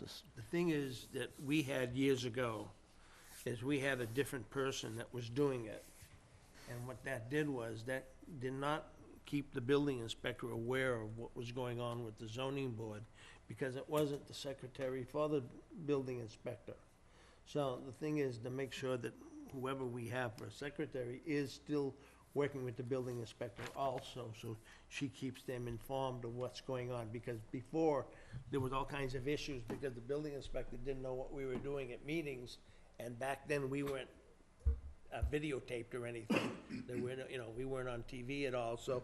analysis. The thing is that we had years ago, is we had a different person that was doing it. And what that did was, that did not keep the building inspector aware of what was going on with the zoning board, because it wasn't the secretary for the building inspector. So the thing is to make sure that whoever we have for secretary is still working with the building inspector also, so she keeps them informed of what's going on, because before, there was all kinds of issues, because the building inspector didn't know what we were doing at meetings, and back then, we weren't uh, videotaped or anything, there were, no- you know, we weren't on TV at all, so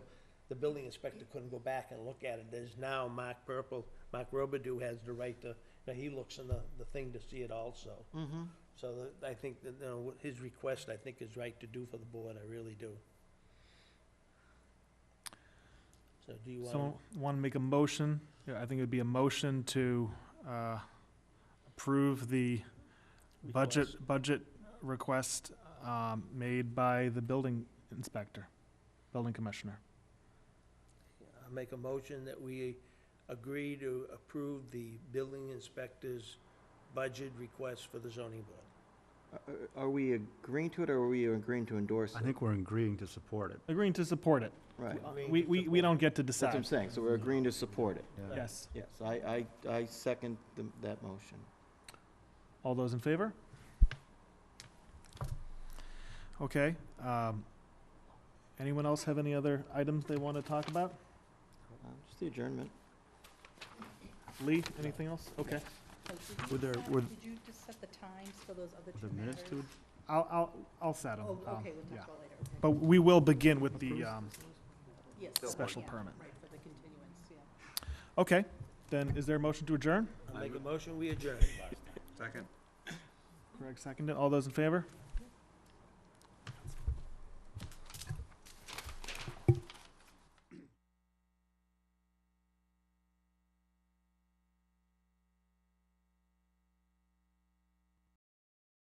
the building inspector couldn't go back and look at it, there's now Mark Purple, Mark Robidoux has the right to, now he looks in the, the thing to see it also. Mm-hmm. So that- I think that, you know, what his request, I think, is right to do for the board, I really do. So do you Someone want, want to make a motion? Yeah, I think it'd be a motion to uh, approve the budget, budget request um, made by the building inspector, building commissioner. I make a motion that we agree to approve the building inspector's budget request for the zoning board. Uh, Are we agreeing to it, or are we agreeing to endorse I it? think we're agreeing to support it. Agreeing to support it. Right, We, we, we don't get to that's what I'm decide. saying, so we're agreeing to support it. Yeah. Yes. Yes, I, I, I second the- that motion. All those in favor? Okay. um, Anyone else have any other items they want to talk about? Uh, Just the adjournment. Lee, anything else? Okay. Oh, Were Did you there- decide- were- did you just set the times for those other Were two there minutes matters? to I'll, I'll, I'll settle. Oh, um, okay, we'll yeah. talk about later. okay. But we will begin with the, um, Yes, special yeah, permit. Right, for the continuance, yeah. okay, then is there a motion to adjourn? I make a motion, we adjourn. Greg seconded, all those in favor?